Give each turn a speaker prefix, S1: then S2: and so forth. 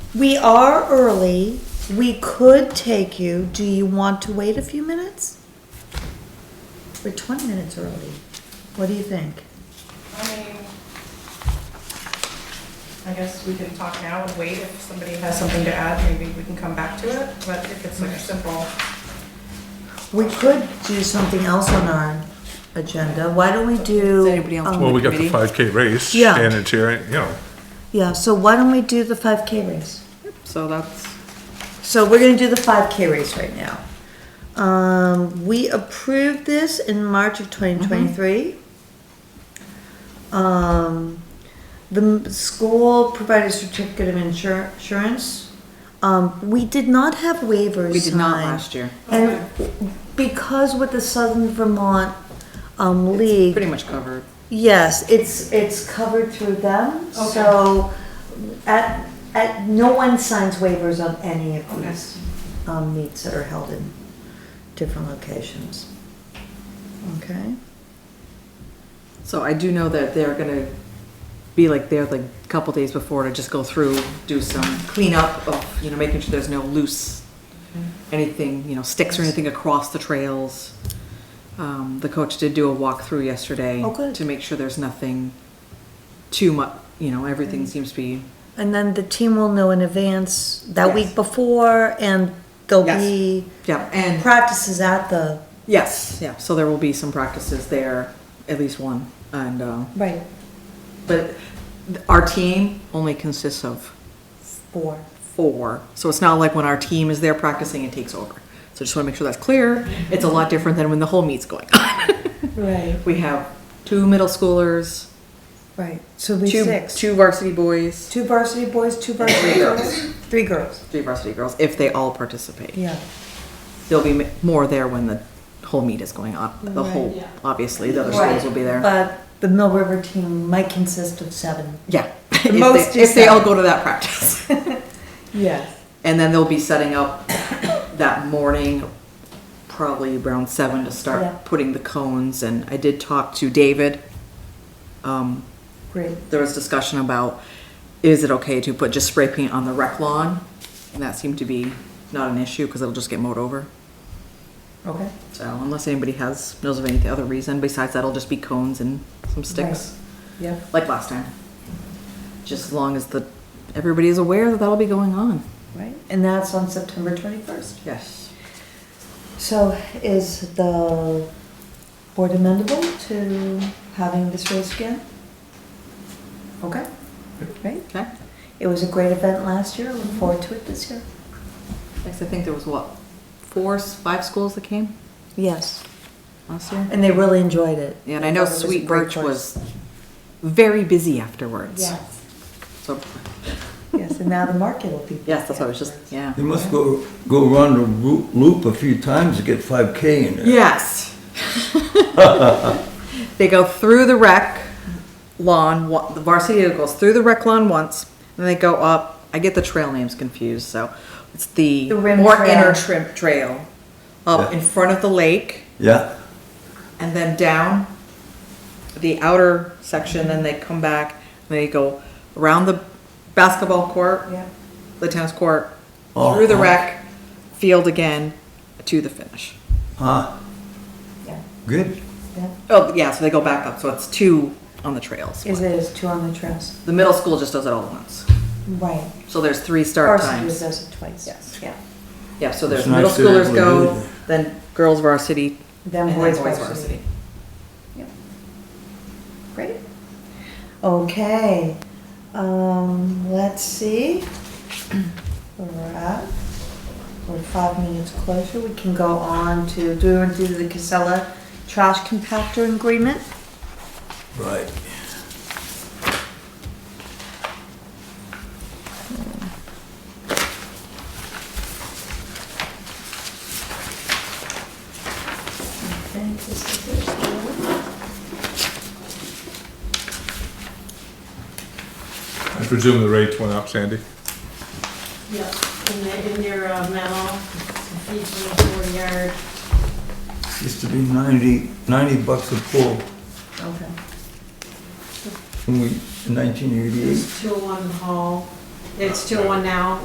S1: We are early. We could take you. Do you want to wait a few minutes? We're twenty minutes early. What do you think?
S2: I mean, I guess we can talk now and wait. If somebody has something to add, maybe we can come back to it. But if it's like a simple,
S1: We could do something else on our agenda. Why don't we do?
S3: Does anybody else
S1: um,
S3: want
S4: Well, we got the
S3: Committee?
S4: five K race,
S1: Yeah.
S4: and it's here, you know,
S1: Yeah, so why don't we do the five K race?
S3: So that's,
S1: So we're gonna do the five K race right now. Um, we approved this in March of twenty twenty-three. Um, the m- school provided a certificate of insur- insurance. Um, we did not have waivers
S3: we did not
S1: signed.
S3: last year.
S1: And because with the Southern Vermont, um, League,
S3: Pretty much covered.
S1: Yes, it's, it's covered through them, so at, at, no one signs waivers on any of these um, meets that are held in different locations. Okay?
S3: So I do know that they're gonna be like there like a couple days before to just go through, do some cleanup of, you know, making sure there's no loose, anything, you know, sticks or anything across the trails. Um, the coach did do a walkthrough yesterday.
S1: Oh, good.
S3: To make sure there's nothing too much, you know, everything seems to be,
S1: And then the team will know in advance that week
S3: Yes.
S1: before, and there'll
S3: Yes.
S1: be
S3: yeah, and,
S1: practices at the.
S3: yes, yeah, so there will be some practices there, at least one, and, uh,
S1: Right.
S3: But our team only consists of
S1: Four.
S3: four, so it's not like when our team is there practicing, it takes over. So just want to make sure that's clear. It's a lot different than when the whole meet's going on.
S1: Right,
S3: We have two middle schoolers,
S1: right, so we
S3: two,
S1: six.
S3: two varsity boys,
S1: Two varsity boys, two varsity girls, three girls,
S3: three varsity girls, if they all participate.
S1: yeah.
S3: There'll be m- more there when the whole meet is going on, the
S1: Right.
S3: whole, obviously, the other
S1: Right,
S3: schools will be there.
S1: But the Mill River team might consist of seven.
S3: Yeah. If they-
S1: most is
S3: If they all
S1: seven.
S3: go to that practice.
S1: Yes.
S3: And then they'll be setting up that morning, probably around seven
S1: Yeah.
S3: to start putting the cones. And I did talk to David. Um,
S1: Great.
S3: there was discussion about, is it okay to put just spray paint on the rec lawn? And that seemed to be not an issue because it'll just get mowed over.
S1: Okay.
S3: So unless anybody has, knows of any other reason, besides that'll just be cones and some sticks,
S1: Yep.
S3: like last time. Just as long as the, everybody is aware that that'll be going on.
S1: Right. And that's on September twenty-first.
S3: Yes.
S1: So is the board amendable to having this race again? Okay. Great.
S3: Okay?
S1: It was a great event last year. Look forward to it this year.
S3: Yes, I think there was what, four, s- five schools that came
S1: Yes.
S3: last year?
S1: And they really enjoyed it.
S3: Yeah, And I know
S1: It was a
S3: Sweet
S1: great
S3: Birch
S1: course.
S3: was very busy afterwards. So,
S1: Yes, and now the market will be.
S3: yes, that's what I was just, yeah.
S5: You must go, go around the roo- loop a few times to get five K in there.
S3: Yes. They go through the rec lawn, wa- the varsity goes through the rec lawn once, and they go up, I get the trail names confused, so it's the
S1: The rim
S3: more
S1: trail.
S3: inner trim, trail up
S5: Yeah.
S3: in front of the lake.
S5: Yeah,
S3: and then down the outer section, then they come back, and they go around the basketball court,
S1: Yeah.
S3: the tennis court,
S5: Oh,
S3: through the
S5: huh.
S3: rec, field again, to the finish.
S5: huh,
S1: Yeah.
S5: good.
S1: Yeah.
S3: Oh, yeah, so they go back up, so it's two on the trails.
S1: Is it is two on the trails?
S3: The middle school just does it all at once.
S1: Right.
S3: So there's three start
S1: Varsity
S3: times.
S1: does it twice.
S3: Yes.
S1: Yeah.
S3: Yeah, so there's
S5: It's nice
S3: middle
S5: to be able
S3: schoolers
S5: to do
S3: go,
S5: that.
S3: then girls varsity,
S1: Then
S3: and
S1: boys
S3: boys
S1: varsity.
S3: varsity.
S1: Great. Okay, um, let's see. Where we're at. We're five minutes closer. We can go on to, do we want to do the Casella trash compactor agreement?
S5: Right.
S4: I presume the rates went up, Sandy?
S6: Yep, in the, in their uh, memo, each little yard,
S5: Used to be ninety, ninety bucks a pull
S1: Okay.
S5: when we, in nineteen eighty-eight.
S6: it's two oh one hall, it's two oh one now,